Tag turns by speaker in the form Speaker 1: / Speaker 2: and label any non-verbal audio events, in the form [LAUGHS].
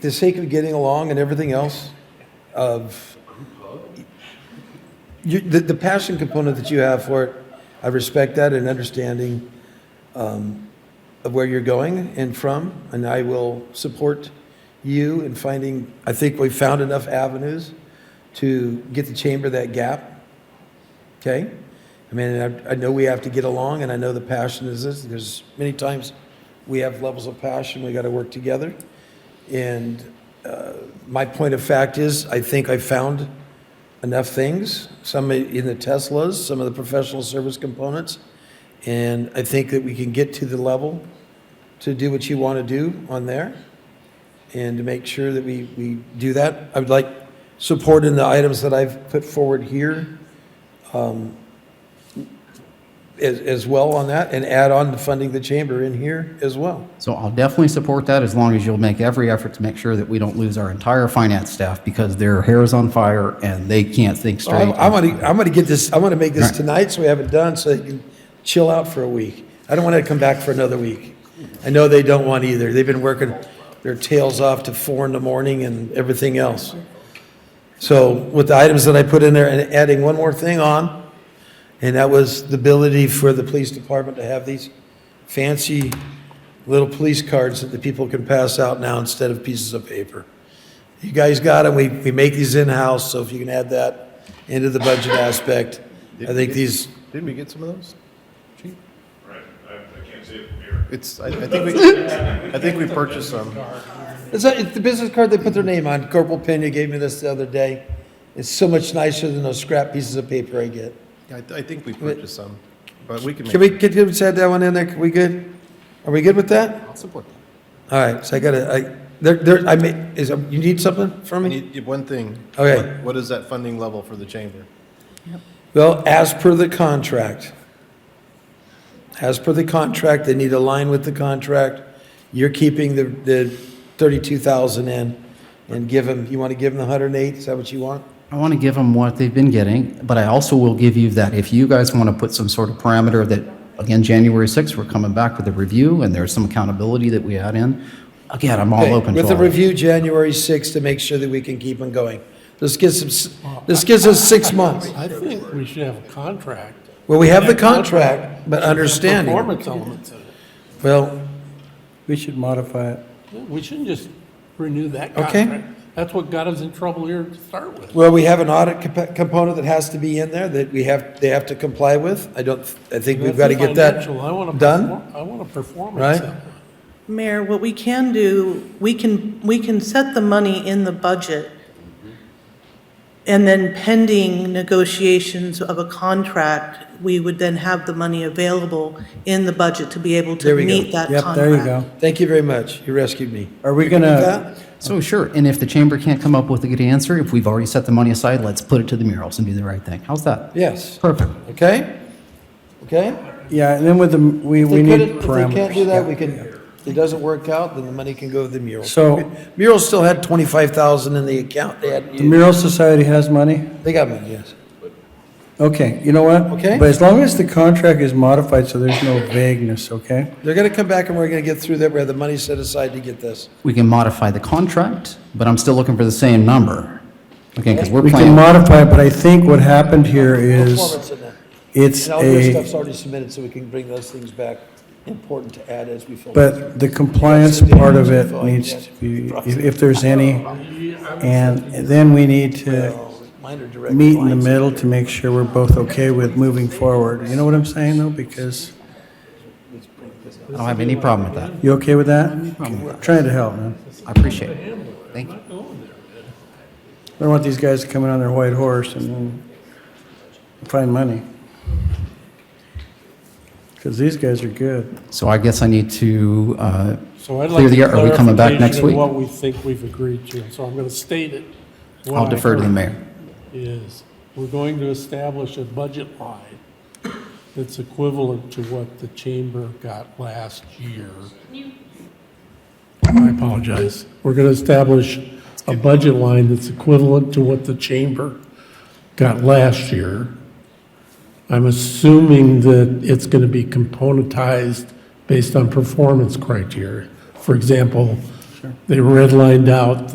Speaker 1: the sake of getting along and everything else of you, the, the passion component that you have for it, I respect that and understanding um, of where you're going and from, and I will support you in finding. I think we've found enough avenues to get the chamber that gap. Okay, I mean, I, I know we have to get along, and I know the passion is this. There's many times we have levels of passion. We got to work together, and uh, my point of fact is, I think I found enough things, some in the Teslas, some of the professional service components. And I think that we can get to the level to do what you want to do on there and to make sure that we, we do that. I would like support in the items that I've put forward here um, as, as well on that and add on to funding the chamber in here as well.
Speaker 2: So I'll definitely support that as long as you'll make every effort to make sure that we don't lose our entire finance staff because their hair is on fire and they can't think straight.
Speaker 1: I'm, I'm gonna, I'm gonna get this, I'm gonna make this tonight, so we have it done, so they can chill out for a week. I don't want to come back for another week. I know they don't want either. They've been working their tails off to four in the morning and everything else. So with the items that I put in there and adding one more thing on, and that was the ability for the police department to have these fancy little police cards that the people can pass out now instead of pieces of paper. You guys got them, we, we make these in-house, so if you can add that into the budget aspect, I think these,
Speaker 3: Didn't we get some of those? Chief?
Speaker 4: Right, I, I can't say it from here.
Speaker 3: It's, I, I think we, I think we purchased some.
Speaker 1: it's, not- it's the business card they put their name on, Corporal Pena gave me this the other day. It's so much nicer than those scrap pieces of paper I get.
Speaker 3: I, I think we purchased some, but we can
Speaker 1: Can
Speaker 3: make,
Speaker 1: we, get you said that one in there, we good? Are we good with that?
Speaker 2: I'll support that.
Speaker 1: All right, so I gotta, I, there, there, I made, is, you need something from
Speaker 3: I
Speaker 1: me?
Speaker 3: need one thing.
Speaker 1: Okay.
Speaker 3: What- What is that funding level for the chamber?
Speaker 1: Well, as per the contract, as per the contract, they need to align with the contract. You're keeping the, the thirty-two thousand in and give them, you want to give them the hundred and eight, is that what you want?
Speaker 2: I want to give them what they've been getting, but I also will give you that if you guys want to put some sort of parameter that, again, January 6th, we're coming back with a review and there's some accountability that we add in. Again, I'm all
Speaker 1: Okay,
Speaker 2: open to
Speaker 1: With a
Speaker 2: all of it.
Speaker 1: review January sixth to make sure that we can keep them going. This gives us, this gives us six months.
Speaker 5: I think we should have a contract.
Speaker 1: Well, we have the contract, but [LAUGHS] understanding,
Speaker 5: Performance elements in it.
Speaker 1: well,
Speaker 6: We should modify it.
Speaker 5: We shouldn't just renew that
Speaker 1: Okay.
Speaker 5: contract. That's what got us in trouble here to start with.
Speaker 1: Well, we have an audit comp- component that has to be in there that we have, they have to comply with. I don't, I think we've got to get that
Speaker 5: Financial, I want a
Speaker 1: done.
Speaker 5: perform- I want a performance
Speaker 1: right?
Speaker 5: element.
Speaker 7: Mayor, what we can do, we can, we can set the money in the budget, and then pending negotiations of a contract, we would then have the money available in the budget to be able
Speaker 1: There
Speaker 7: to
Speaker 1: we go.
Speaker 7: meet that
Speaker 6: Yep,
Speaker 7: contract.
Speaker 6: there you go.
Speaker 1: Thank you very much. You rescued me.
Speaker 6: Are we
Speaker 1: With
Speaker 6: gonna,
Speaker 1: that,
Speaker 2: So sure, and if the chamber can't come up with a good answer, if we've already set the money aside, let's put it to the murals and do the right thing. How's that?
Speaker 1: Yes,
Speaker 2: Perfect.
Speaker 1: okay? Okay?
Speaker 6: yeah, and then with the, we,
Speaker 1: If
Speaker 6: we
Speaker 1: they
Speaker 6: need
Speaker 1: couldn't- If they can't do that, we
Speaker 6: parameters.
Speaker 1: can, if it doesn't work out, then the money can go to the mural.
Speaker 6: So-
Speaker 1: Mural still had 25,000 in the account. They had,
Speaker 6: The Mural Society has money?
Speaker 1: they got money, yes.
Speaker 6: Okay, you know what?
Speaker 1: Okay.
Speaker 6: But as long as the contract is modified, so there's no vagueness, okay?
Speaker 1: They're going to come back and we're going to get through that. We have the money set aside to get this.
Speaker 2: We can modify the contract, but I'm still looking for the same number. Okay, because we're
Speaker 6: We can
Speaker 2: playing.
Speaker 6: modify it, but I think what happened here is,
Speaker 1: Performance in that.
Speaker 6: it's
Speaker 1: And all your
Speaker 6: a,
Speaker 1: stuff's already submitted, so we can bring those things back, important to add as we fill.
Speaker 6: but the compliance part of it needs to be, if, if there's any, and then we need to
Speaker 1: Minor direct
Speaker 6: meet in the
Speaker 1: lines.
Speaker 6: middle to make sure we're both okay with moving forward. You know what I'm saying, though? Because,
Speaker 2: I don't have any problem with that.
Speaker 6: you okay with that? I'm Trying to help, man.
Speaker 2: I appreciate it. Thank you.
Speaker 6: I don't want these guys coming on their white horse and then find money. Because these guys are good.
Speaker 2: So I guess I need to uh,
Speaker 5: So I'd like
Speaker 2: clear the
Speaker 5: a
Speaker 2: air. Are we coming back
Speaker 5: clarification
Speaker 2: next
Speaker 5: of
Speaker 2: week?
Speaker 5: What we think we've agreed to, so I'm going to state it. What
Speaker 2: I'll
Speaker 5: I
Speaker 2: defer to the
Speaker 5: heard
Speaker 2: mayor.
Speaker 5: Is, we're going to establish a budget line that's equivalent to what the chamber got last year. I apologize. We're going to establish a budget line that's equivalent to what the chamber got last year. I'm assuming that it's going to be componentized based on performance criteria. For example, They redlined out